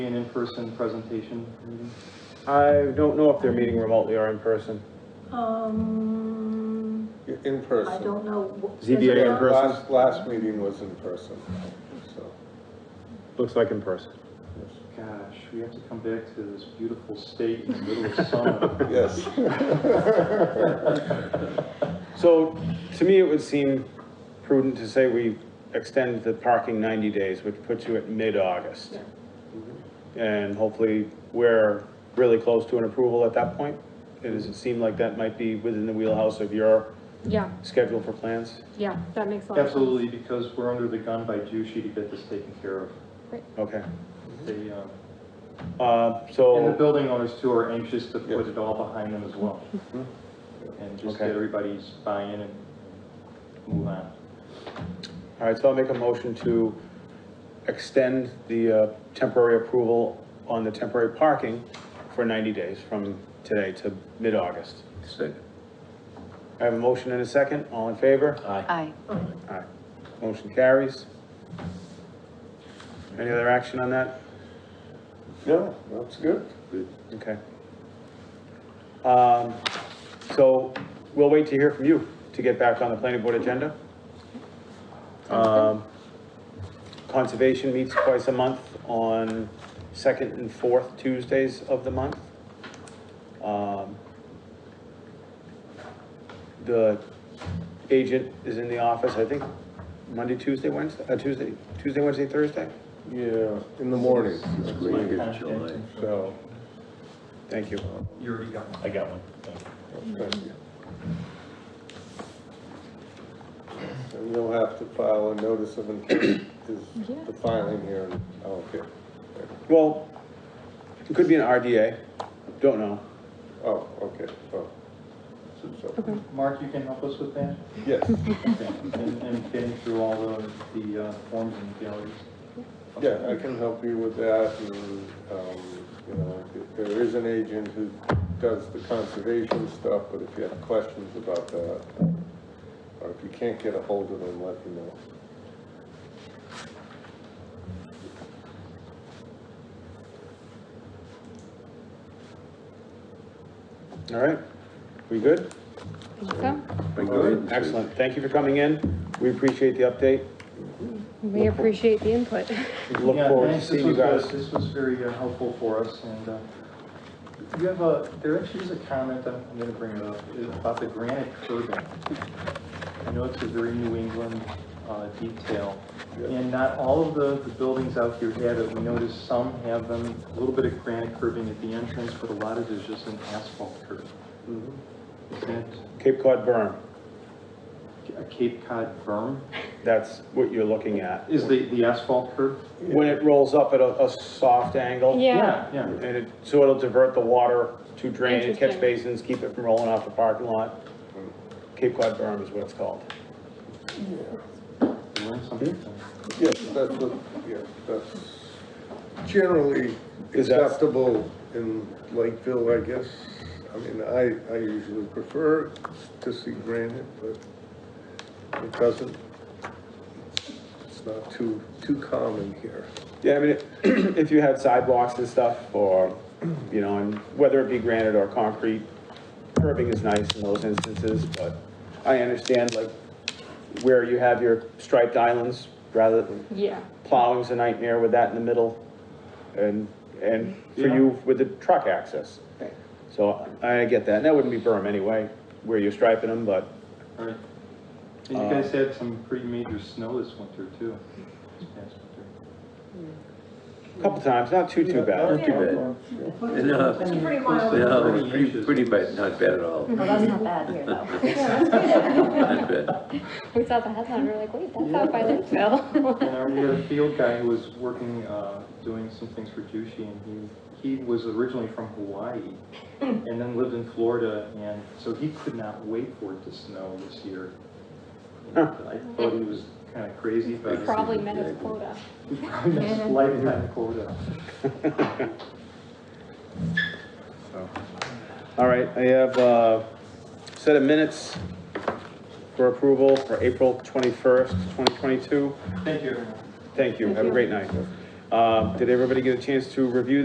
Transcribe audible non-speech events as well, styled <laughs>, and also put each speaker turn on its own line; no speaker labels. Be An in-person presentation meeting?
I don't know if they're meeting remotely or in person.
Um,
In
I
person.
don't know.
ZBA in person?
Last, last meeting was in person, so,
Looks like in person.
Gosh, we have to come back to this beautiful state in the middle of
<laughs>
summer.
yes.
So to me, it would seem prudent to say we extend the parking 90 days, which puts you at mid-August. And hopefully, we're really close to an approval at that point. It doesn't seem like that might be within the wheelhouse of your
Yeah,
schedule for plans.
yeah, that makes a lot of sense.
Absolutely, because we're under the gun by Jushi to get this taken care of.
Okay.
They, uh,
Uh,
and the
So,
building owners too are anxious to put it all behind them as well. And just
Okay.
get everybody's buy-in and move on.
all right, so I'll make a motion to extend the uh, temporary approval on the temporary parking for 90 days from today to mid-August. I have a motion and a second. All in favor?
Aye.
Aye. Motion carries. Any other action on that?
No, that's good.
Okay. Um, so we'll wait to hear from you to get back on the planning board agenda. Um, conservation meets twice a month on second and fourth Tuesdays of the month. Um, the agent is in the office, I think, Monday, Tuesday, Wednesday, uh, Tuesday, Tuesday, Wednesday, Thursday?
Yeah, in the morning.
Contact.
So,
Thank you.
You already got one.
I got one.
thank you. And you'll have to file a notice of intent, is
Yeah.
the filing here, in- oh, okay,
Well, it could be an RDA, don't know.
oh, okay, oh. So,
Mark, you can help us with that?
yes,
And, and getting through all the, the uh, forms and galleries?
yeah, I can help you with that, and, um, you know, if there is an agent who does the conservation stuff, but if you have questions about that, or if you can't get a hold of them, let me know.
All right, we good?
Think so?
Excellent, thank you for coming in, we appreciate the update,
We appreciate the input.
look
Yeah,
forward to
thanks. This
seeing you
was, uh,
guys.
This was very uh, helpful for us, and uh, you have a, there actually is a comment, I'm I'm gonna bring it up, is about the granite curbing. I know it's a very New England uh, detail, and not all of the the buildings out here have it. We noticed some have them, a little bit of granite curbing at the entrance, but a lot of it is just an asphalt curb. Mm-hmm. Is that
Cape Cod berm,
a Cape Cod berm?
that's what you're looking at.
Is the, the asphalt curb?
When it rolls up at a, a soft angle.
Yeah.
Yeah,
And it, so it'll divert the water to drain and catch
Interesting.
basins, keep it from rolling off the parking lot. Cape Cod berm is what it's called.
you learn something.
Yes, that's what, yeah, that's generally
Is that-
acceptable in Lakeville, I guess. I mean, I, I usually prefer to see granite, but it doesn't, it's not too, too common here.
Yeah, I mean, if <clears throat> you had sidewalks and stuff, or, you know, and whether it be granite or concrete, curbing is nice in those instances, but I understand, like, where you have your striped islands, rather than
Yeah,
plowing's a nightmare with that in the middle, and, and for you with the truck access.
Right.
So I get that, and that wouldn't be berm anyway, where you're striping them, but
All right. And you guys had some pretty major snow this winter too. this past winter.
a couple times, not too, too bad.
Not too bad. No,
Pretty mild.
no, pretty, pretty bad, not bad at all,
Well, that's not bad here, though.
<laughs> not bad.
we saw the headline, we were like, wait, that's out by Lakeville.
And our, we had a field guy who was working, uh, doing some things for Jushi and he, he was originally from Hawaii and then lived in Florida and so he could not wait for it to snow this year. And I thought he was kind of crazy, but he
Probably met his quota.
probably missed his lifetime quota.
So, Oh. All right, I have a set of minutes for approval for April 21st, 2022.
Thank you everyone.
Thank you, have a great night. Uh, Did everybody get a chance to review